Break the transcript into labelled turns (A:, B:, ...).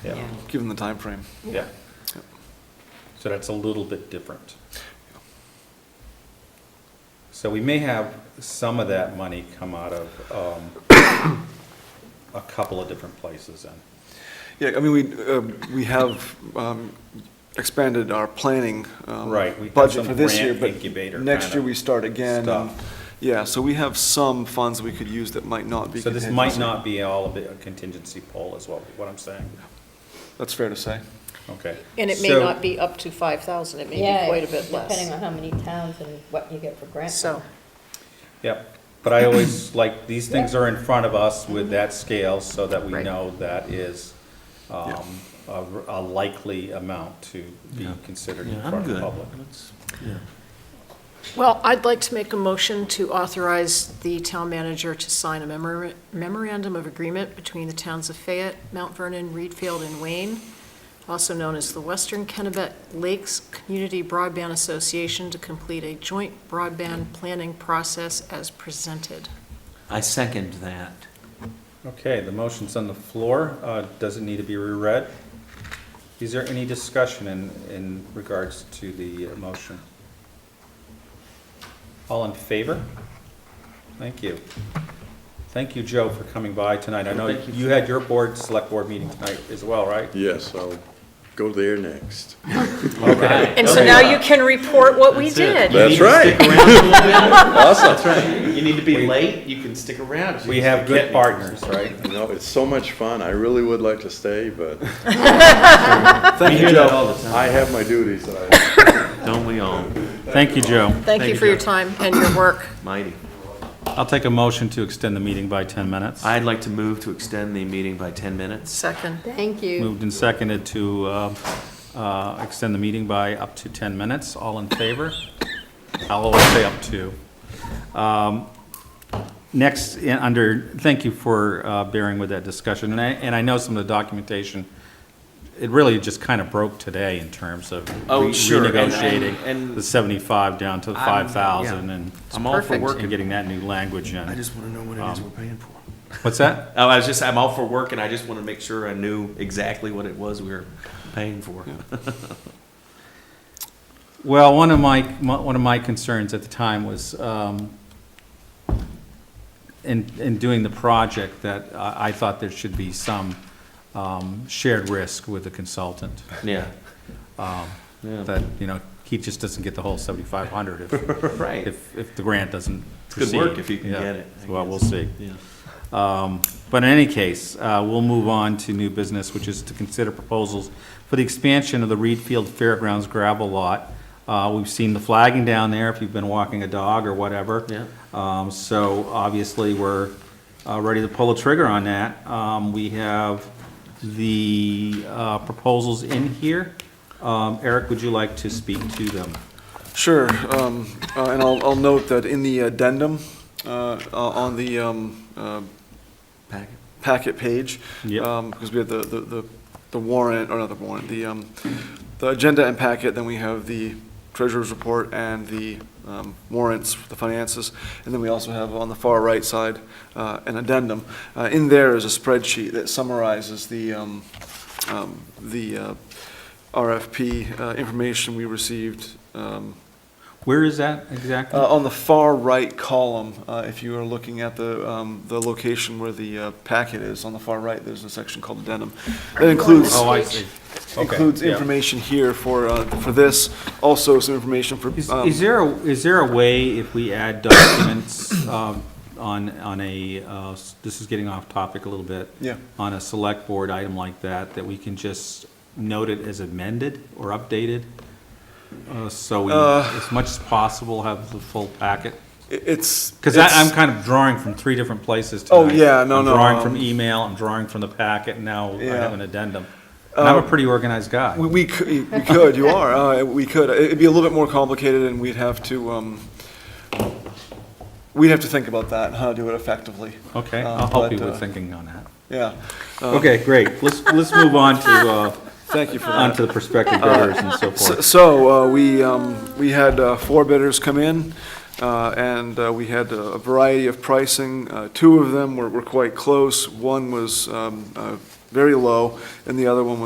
A: given the time frame.
B: Yeah.
A: Yep.
B: So that's a little bit different. So we may have some of that money come out of um, a couple of different places then.
A: Yeah, I mean, we, uh, we have um, expanded our planning. um,
B: Right, we have
A: Budget
B: some
A: for this year,
B: grant
A: but
B: incubator
A: next
B: kinda
A: year we start again. and-
B: stuff.
A: Yeah, so we have some funds we could use that might not be.
B: So this might
A: contingency.
B: not be all of it a contingency pool is what, what I'm saying.
A: That's fair to say.
B: Okay.
C: And it may
B: So-
C: not be up to 5,000, it may
D: Yeah,
C: be quite a bit
D: Depending
C: less.
D: on how many towns and what you get for grant.
C: So,
B: Yep, but I always, like, these things are in front of us with that scale so that we
C: Mm-hmm. Right.
B: know that is
A: Yeah.
B: um, a a likely amount to be
E: Yeah.
B: considered in
E: Yeah,
B: front
E: I'm
B: of the
E: good.
B: public.
E: Let's- yeah.
C: well, I'd like to make a motion to authorize the town manager to sign a memora- memorandum of agreement between the towns of Fayette, Mount Vernon, Reedfield, and Wayne, also known as the Western Kennebec Lakes Community Broadband Association, to complete a joint broadband planning process as presented.
E: I second that.
B: Okay, the motion's on the floor, Uh, does it need to be reread? Is there any discussion in, in regards to the motion? All in favor? Thank you. Thank you, Joe, for coming by tonight. I know you had your board, select board meeting tonight as well, right?
F: Yes, I'll go there next.
E: Okay.
C: And so now you can report what we
G: That's it.
C: did.
F: That's right. Awesome.
G: You need to be late, you can stick around. if you
B: We
G: just
B: have
G: get
B: good
G: me.
B: partners, right?
F: You know, it's so much fun. I really would like to stay, but
G: We hear that all the time.
F: I have my duties that I.
E: Don't we all?
B: Thank you, Joe.
C: Thank you for your time and your work.
G: Mighty.
B: I'll take a motion to extend the meeting by 10 minutes.
G: I'd like to move to extend the meeting by 10 minutes.
C: Second.
D: Thank you.
B: Moved and seconded to uh, uh, extend the meeting by up to 10 minutes. All in favor? I'll always say up to. Um, Next, in- under, thank you for uh, bearing with that discussion, and I, and I know some of the documentation, it really just kind of broke today in terms of
G: Oh,
B: re-
G: sure, and- and-
B: renegotiating
G: and-
B: the 75 down to 5,000
G: yeah.
B: and.
G: I'm all for
B: and
G: working.
B: Getting that new language
G: I
B: in.
G: just want to know what it is we're paying for.
B: What's that?
G: Oh, I was just, I'm all for work, and I just want to make sure I knew exactly what it was we were paying for.
B: Well, one of my, my- one of my concerns at the time was, um, in, in doing the project, that I, I thought there should be some, um, shared risk with the consultant.
G: Yeah. Yeah.
B: That, you know, he just doesn't get the whole seventy-five hundred if,
G: Right.
B: if, if the grant doesn't
G: good
B: proceed.
G: work if you can
B: Yeah.
G: get it, I
B: Well, we'll
G: guess.
B: see.
G: Yeah.
B: Um, But in any case, uh, we'll move on to new business, which is to consider proposals for the expansion of the Reed Field Fairgrounds gravel lot. Uh, We've seen the flagging down there if you've been walking a dog or whatever.
G: Yeah.
B: Um, So obviously, we're uh, ready to pull the trigger on that. Um, We have the uh, proposals in here. Um, Eric, would you like to speak to them?
A: Sure, um, uh, and I'll, I'll note that in the addendum, uh, uh, on the, um, uh,
G: Packet.
A: packet page.
B: Yep.
A: um, Because we have the, the- the, the warrant, or not the warrant, the, um, the agenda and packet, then we have the treasurer's report and the um, warrants, the finances. And then we also have on the far right side, uh, an addendum. Uh, in there is a spreadsheet that summarizes the, um, um, the, uh, RFP, uh, information we received, um,
B: Where is that exactly?
A: uh, On the far right column, uh, if you are looking at the, um, the location where the uh, packet is, on the far right, there's a section called addendum. That includes,
B: Oh, I see. Okay,
A: includes
B: yeah.
A: information here for, uh, for this, also some information for.
B: Is,
A: um,
B: is there, a- is there a way if we add documents, um, on, on a, uh, s- this is getting off topic a little bit.
A: Yeah.
B: On a select board item like that, that we can just note it as amended or updated? Uh, so we,
A: Uh.
B: as much as possible, have the full packet?
A: it- It's.
B: Cause I,
A: it's-
B: I'm kind of drawing from three different places
A: Oh,
B: tonight.
A: yeah, no, no,
B: I'm drawing from
A: um,
B: email, I'm drawing from the packet, and now I
A: Yeah. Um,
B: have an addendum. And I'm a pretty organized guy.
A: We, we could, we could, you are, uh, we could. It'd be a little bit more complicated and we'd have to, um, we'd have to think about that and how to do it effectively.
B: Okay,
A: Um,
B: I'll help
A: but,
B: you with
A: uh,
B: thinking on that.
A: Yeah,
B: Okay, great. Let's, let's move on to, uh,
A: thank you for that.
B: onto the prospective bidders and so
A: So-
B: forth.
A: So, uh, we, um, we had uh, four bidders come in, uh, and uh, we had a variety of pricing. Uh, Two of them were were quite close, one was um, uh, very low, and the other one was.